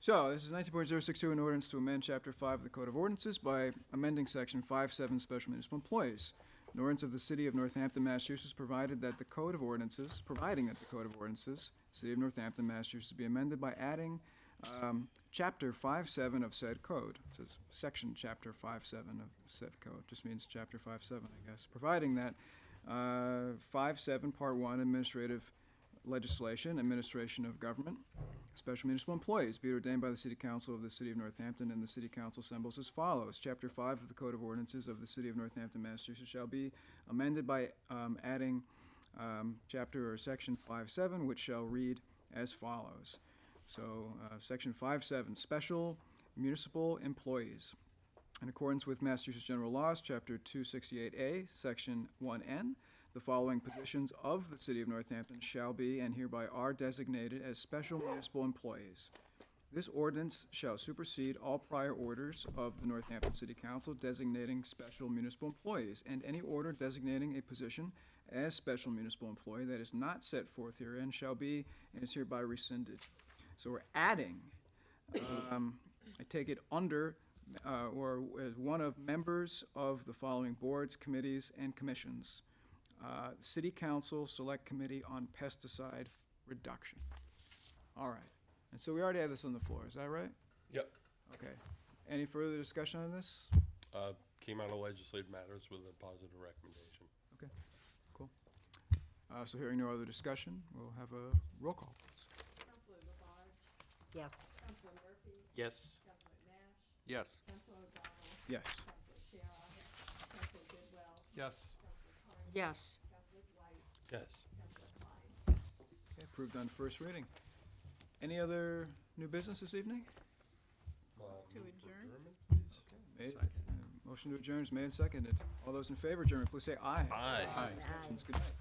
So, this is 19.062, an ordinance to amend Chapter 5 of the Code of Ordinances by amending Section 57, Special Municipal Employees. An ordinance of the City of Northampton, Massachusetts, provided that the Code of Ordinances, providing that the Code of Ordinances, City of Northampton, Massachusetts, be amended by adding um, Chapter 57 of said code. It says Section Chapter 57 of said code, just means Chapter 57, I guess, providing that uh, 57, Part 1, Administrative Legislation, Administration of Government, Special municipal employees be it ordained by the City Council of the City of Northampton, and the City Council assembles as follows. Chapter five of the Code of Ordinances of the City of Northampton, Massachusetts shall be amended by um, adding um, chapter or section five seven, which shall read as follows. So, uh, section five seven, special municipal employees. In accordance with Massachusetts General Laws, Chapter 268A, Section 1N, the following positions of the City of Northampton shall be and hereby are designated as special municipal employees. This ordinance shall supersede all prior orders of the Northampton City Council designating special municipal employees, and any order designating a position as special municipal employee that is not set forth herein shall be and is hereby rescinded. So we're adding um, I take it under, uh, or as one of members of the following boards, committees, and commissions. Uh, City Council Select Committee on Pesticide Reduction. All right. And so we already have this on the floor, is that right? Yep. Okay. Any further discussion on this? Uh, came out of legislative matters with a positive recommendation. Okay, cool. Uh, so hearing no other discussion, we'll have a roll call, please. Councilor Labarge, Yes. Councilor Murphy, Yes. Councilor Nash, Yes. Councilor O'Donnell, Yes. Councilor Shara, Councilor Bidwell, Yes. Councilor Carney, Yes. Councilor Dwight, Yes. Councilor Klein. Okay, approved on first reading. Any other new business this evening? To adjourn? Made- uh, Motion to adjourn is made and seconded. All those in favor, adjourn, please say aye. Aye. Options, good night.